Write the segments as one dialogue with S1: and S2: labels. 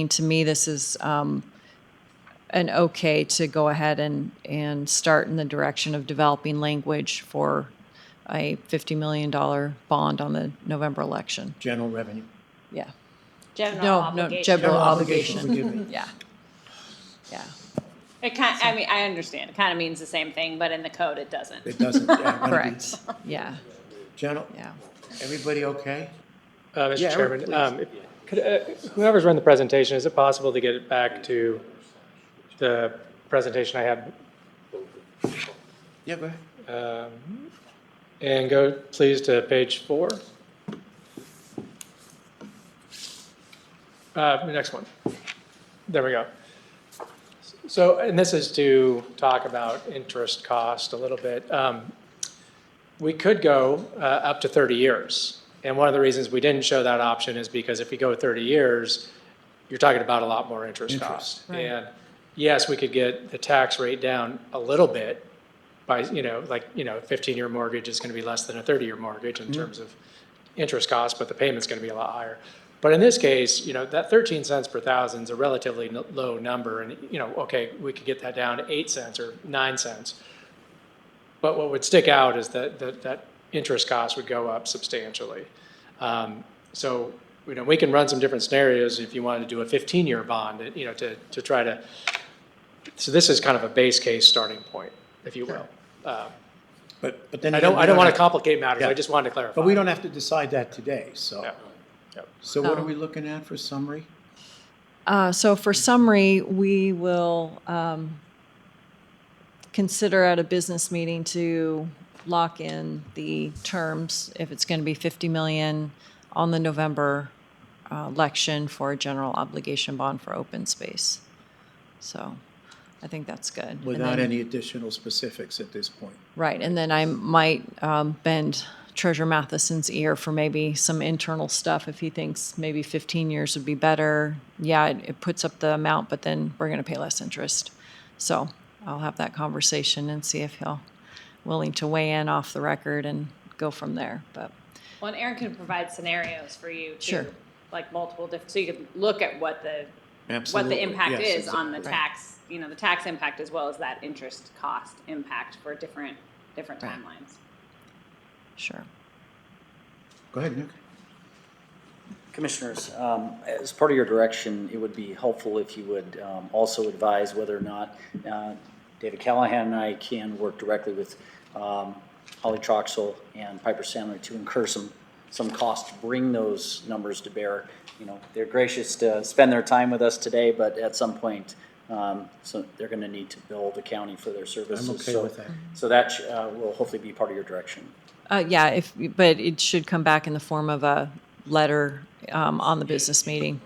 S1: mean, to me, this is um, an okay to go ahead and, and start in the direction of developing language for a $50 million bond on the November election.
S2: General revenue.
S1: Yeah.
S3: General
S1: No, no,
S3: obligation.
S1: general
S2: obligation,
S1: obligation.
S2: forgive me.
S1: Yeah. Yeah.
S3: It kind, I mean, I understand, it kind of means the same thing, but in the code it doesn't.
S2: It doesn't, yeah, one of
S1: Correct.
S2: these.
S1: Yeah.
S2: General,
S1: Yeah.
S2: everybody okay?
S4: Uh,
S2: Yeah,
S4: Mr.
S2: Eric,
S4: Chairman, um, if- could, uh, whoever's run the presentation, is it possible to get it back to the presentation I had?
S2: Yeah, go ahead.
S4: um, And go, please, to page four. Uh, The next one. There we go. So, and this is to talk about interest cost a little bit. Um, We could go uh, up to 30 years. And one of the reasons we didn't show that option is because if you go 30 years, you're talking about a lot more interest
S2: Interest,
S4: cost.
S1: right.
S4: And yes, we could get the tax rate down a little bit by, you know, like, you know, 15-year mortgage is going to be less than a 30-year mortgage in terms of interest cost, but the payment's going to be a lot higher. But in this case, you know, that 13 cents per thousand is a relatively n- low number, and, you know, okay, we could get that down to 8 cents or 9 cents. But what would stick out is that, that, that interest cost would go up substantially. Um, So, you know, we can run some different scenarios if you wanted to do a 15-year bond, you know, to, to try to, so this is kind of a base case starting point, if you will.
S2: But, but then.
S4: I don't,
S2: again,
S4: I don't want to
S2: have-
S4: complicate matters,
S2: Yeah.
S4: I just wanted to clarify.
S2: But we don't have to decide that today, so.
S4: Yeah. Yep.
S2: So what are
S1: No.
S2: we looking at for summary?
S1: Uh, So for summary, we will um, consider at a business meeting to lock in the terms, if it's going to be 50 million on the November uh, election for a general obligation bond for open space. So I think that's good. And
S2: Without
S1: then-
S2: any additional specifics at this point.
S1: Right, and then I might um, bend Treasurer Matheson's ear for maybe some internal stuff if he thinks maybe 15 years would be better. Yeah, it, it puts up the amount, but then we're going to pay less interest. So I'll have that conversation and see if he'll willing to weigh in off the record and go from there. But
S3: Well, and Aaron can provide scenarios for you
S1: Sure.
S3: too, like multiple different, so you could look at what the, what
S2: Absolutely.
S3: the impact
S2: Yes,
S3: is on the
S2: exactly.
S3: tax, you know, the tax impact as well as that interest cost impact for different, different
S1: Right.
S3: timelines.
S1: sure.
S2: Go ahead, Nick.
S5: Commissioners, um, as part of your direction, it would be helpful if you would um, also advise whether or not uh, David Callahan and I can work directly with um, Holly Troxel and Piper Sandler to incur some, some cost to bring those numbers to bear. You know, they're gracious to spend their time with us today, but at some point, um, so they're going to need to bill the county for their services.
S2: okay
S5: So-
S2: with that.
S5: So that uh, will hopefully be part of your direction.
S1: Uh, yeah, if but it should come back in the form of a letter um, on the business meeting.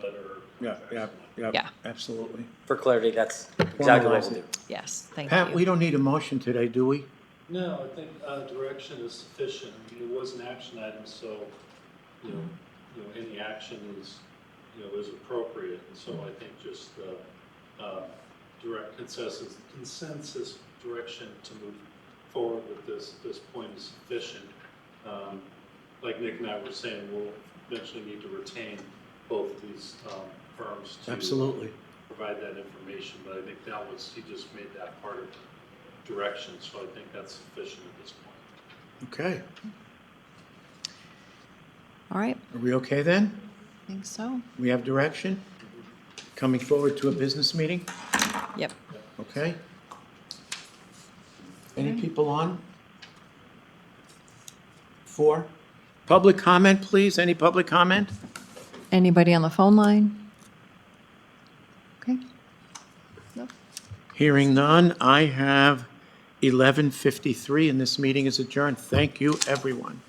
S2: Yeah, yeah, yeah,
S1: Yeah.
S2: absolutely.
S5: For clarity, that's exactly what
S2: Formalize
S5: we'll
S2: it.
S5: do.
S1: Yes, thank
S2: Pat,
S1: you.
S2: we don't need a motion today, do we?
S6: No, I think uh, direction is sufficient. I mean, it was an action item, so, you know, you know, any action is, you know, is appropriate. And so I think just uh uh, direct consensus, consensus direction to move forward with this, this point is sufficient. Um, Like Nick and I were saying, we'll eventually need to retain both of these um, firms to
S2: Absolutely.
S6: provide that information, but I think that was, he just made that part of the direction, so I think that's sufficient at this point.
S2: Okay.
S1: All right,
S2: Are we okay then?
S1: I think so.
S2: We have direction? Coming forward to a business meeting?
S1: Yep.
S2: Okay. Any people on? Four. Public comment, please. Any public comment?
S1: Anybody on the phone line? Okay.
S2: Hearing none, I have 11:53, and this meeting is adjourned. Thank you, everyone.